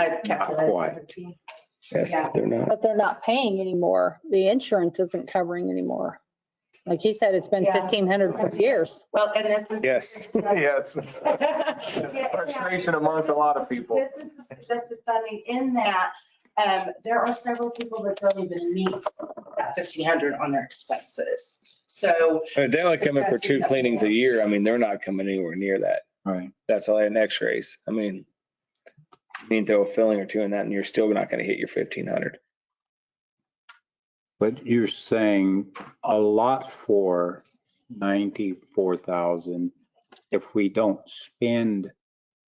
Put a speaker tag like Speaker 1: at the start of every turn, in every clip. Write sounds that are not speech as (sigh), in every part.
Speaker 1: I've kept it
Speaker 2: Not
Speaker 1: at
Speaker 2: quite.
Speaker 1: 17.
Speaker 3: Yes,
Speaker 1: Yeah.
Speaker 3: they're not.
Speaker 4: But they're not paying anymore. The insurance isn't covering anymore. Like he said, it's been
Speaker 1: Yeah.
Speaker 4: 1,500 for years.
Speaker 1: Well, and this is.
Speaker 2: (laughs) Yes,
Speaker 1: Yeah,
Speaker 2: yes.
Speaker 1: yeah.
Speaker 2: Frustration amongst a lot of people.
Speaker 1: This is suggested funding in that, um, there are several people that don't even meet that fifteen hundred on their expenses. So,
Speaker 3: They're only coming for two cleanings a year. I mean, they're not coming anywhere near that.
Speaker 5: Right.
Speaker 3: That's all in x-rays. I mean, you need to throw a filling or two in that and you're still not going to hit your 1500.
Speaker 5: But you're saying a lot for 94,000 if we don't spend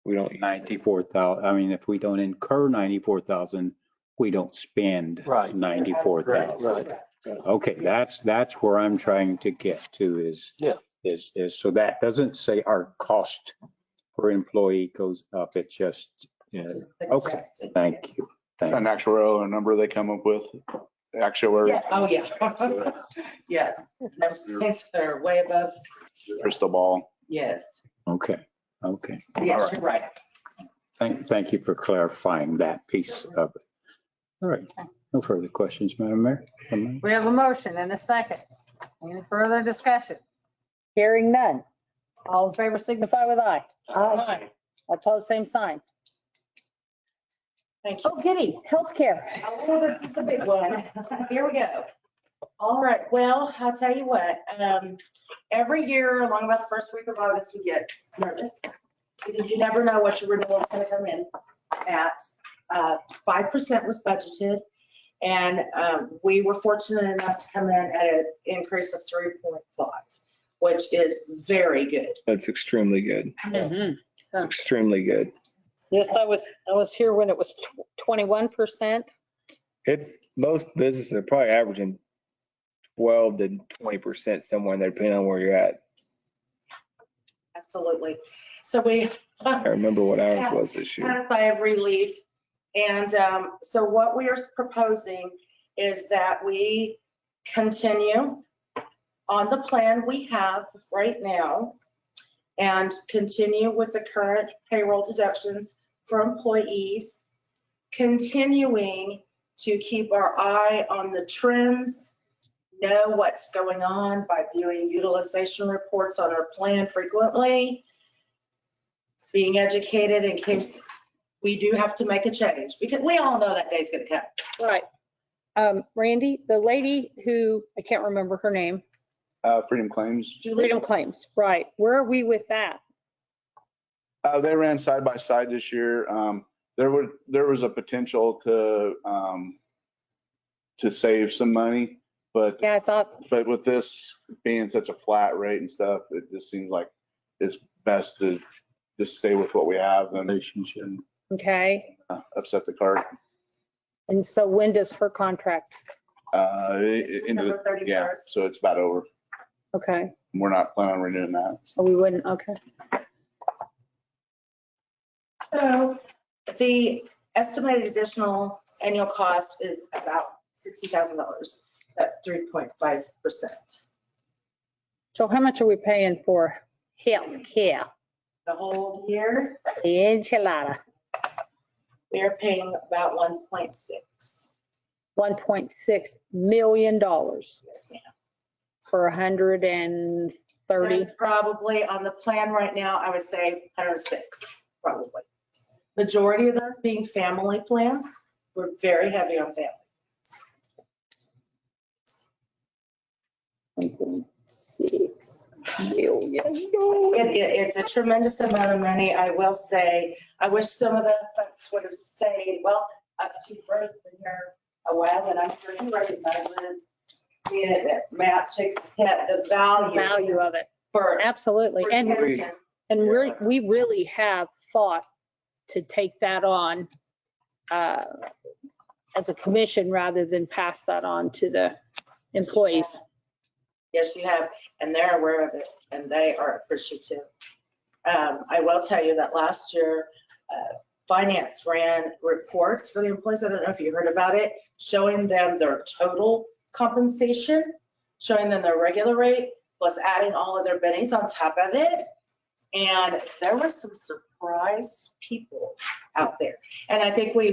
Speaker 3: We don't,
Speaker 5: 94,000, I mean, if we don't incur 94,000, we don't spend
Speaker 2: Right.
Speaker 5: 94,000.
Speaker 2: Right.
Speaker 5: Okay, that's, that's where I'm trying to get to is.
Speaker 2: Yeah.
Speaker 5: Is, is, so that doesn't say our cost per employee goes up. It just, yeah,
Speaker 1: just
Speaker 5: Okay,
Speaker 1: suggested,
Speaker 5: thank you. Thank
Speaker 6: an actuarial number they come up with,
Speaker 1: Yeah,
Speaker 6: actuary,
Speaker 1: oh, yeah. (laughs) Yes, those things that are way above,
Speaker 6: crystal ball.
Speaker 1: yes,
Speaker 5: Okay, okay.
Speaker 1: yes, you're right.
Speaker 5: Thank, thank you for clarifying that piece of it. All right, no further questions, Madam Mayor? Am
Speaker 7: We have a motion and a second. Any further discussion?
Speaker 4: Hearing none.
Speaker 7: All in favor,
Speaker 4: Signify with aye.
Speaker 7: Aye.
Speaker 4: Opposed, same sign.
Speaker 1: Thank you.
Speaker 7: Oh, giddy.
Speaker 4: Healthcare.
Speaker 1: Oh, this is the big one. (laughs) Here we go. All right, well, I'll tell you what, um, every year along about the first week of August, we get nervous. Because you never know what your renewal is gonna come in at. Uh, five percent was budgeted. And, um, we were fortunate enough to come in at an increase of three point five, which is very good.
Speaker 3: that's extremely good.
Speaker 4: Mm-hmm.
Speaker 3: It's extremely good.
Speaker 4: Yes, I was, I was here when it was tw- 21%.
Speaker 3: It's, most businesses are probably averaging 12 to 20% somewhere in there, depending on where you're at.
Speaker 1: Absolutely. So we, (laughs) um,
Speaker 3: I remember what ours was this year.
Speaker 1: satisfy of relief. And um, so what we are proposing is that we continue on the plan we have right now and continue with the current payroll deductions for employees, continuing to keep our eye on the trends, know what's going on by viewing utilization reports on our plan frequently, being educated in case we do have to make a change because we all know that day's gonna come.
Speaker 4: Right. Um, Randy, the lady who, I can't remember her name,
Speaker 6: Uh, Freedom Claims,
Speaker 1: Julie,
Speaker 4: Freedom Claims, right. Where are we with that?
Speaker 6: uh, they ran side by side this year. Um, there were, there was a potential to, um, to save some money, but,
Speaker 4: Yeah, I thought,
Speaker 6: but with this being such a flat rate and stuff, it just seems like it's best to just stay with what we have
Speaker 5: I-
Speaker 6: and
Speaker 5: Relationship.
Speaker 4: okay.
Speaker 6: uh, upset the cart.
Speaker 4: And so when does her contract?
Speaker 6: Uh, it-
Speaker 1: It's
Speaker 6: it- into
Speaker 1: December
Speaker 6: the- yeah,
Speaker 1: 31st.
Speaker 6: so it's about over.
Speaker 4: Okay,
Speaker 6: We're not planning on renewing that.
Speaker 4: so we wouldn't, okay.
Speaker 1: so the estimated additional annual cost is about sixty thousand dollars. That's three point five percent.
Speaker 4: So how much are we paying for healthcare?
Speaker 1: The whole year,
Speaker 4: The enchilada,
Speaker 1: we are paying about one point six.
Speaker 4: $1.6 million
Speaker 1: Yes, ma'am.
Speaker 4: for 130.
Speaker 1: There's Probably on the plan right now, I would say hundred and six, probably. Majority of those being family plans. We're very heavy on family.
Speaker 4: $1.6 million.
Speaker 1: It, it- it's a tremendous amount of money, I will say. I wish some of the folks would have stayed, well, uh, Chief Rose been here a while, and I'm sure he recognizes it, Matt shakes his head, the value.
Speaker 4: Value of it,
Speaker 1: For.
Speaker 4: absolutely.
Speaker 1: for
Speaker 4: And,
Speaker 1: children.
Speaker 4: and we're, we really have thought to take that on uh, as a commission rather than pass that on to the employees.
Speaker 1: Yes, you have, and they're aware of it, and they are appreciative. Um, I will tell you that last year, uh, finance ran reports for the employees, I don't know if you heard about it, showing them their total compensation, showing them their regular rate, plus adding all of their bennies on top of it. And there were some surprised people out there. And I think we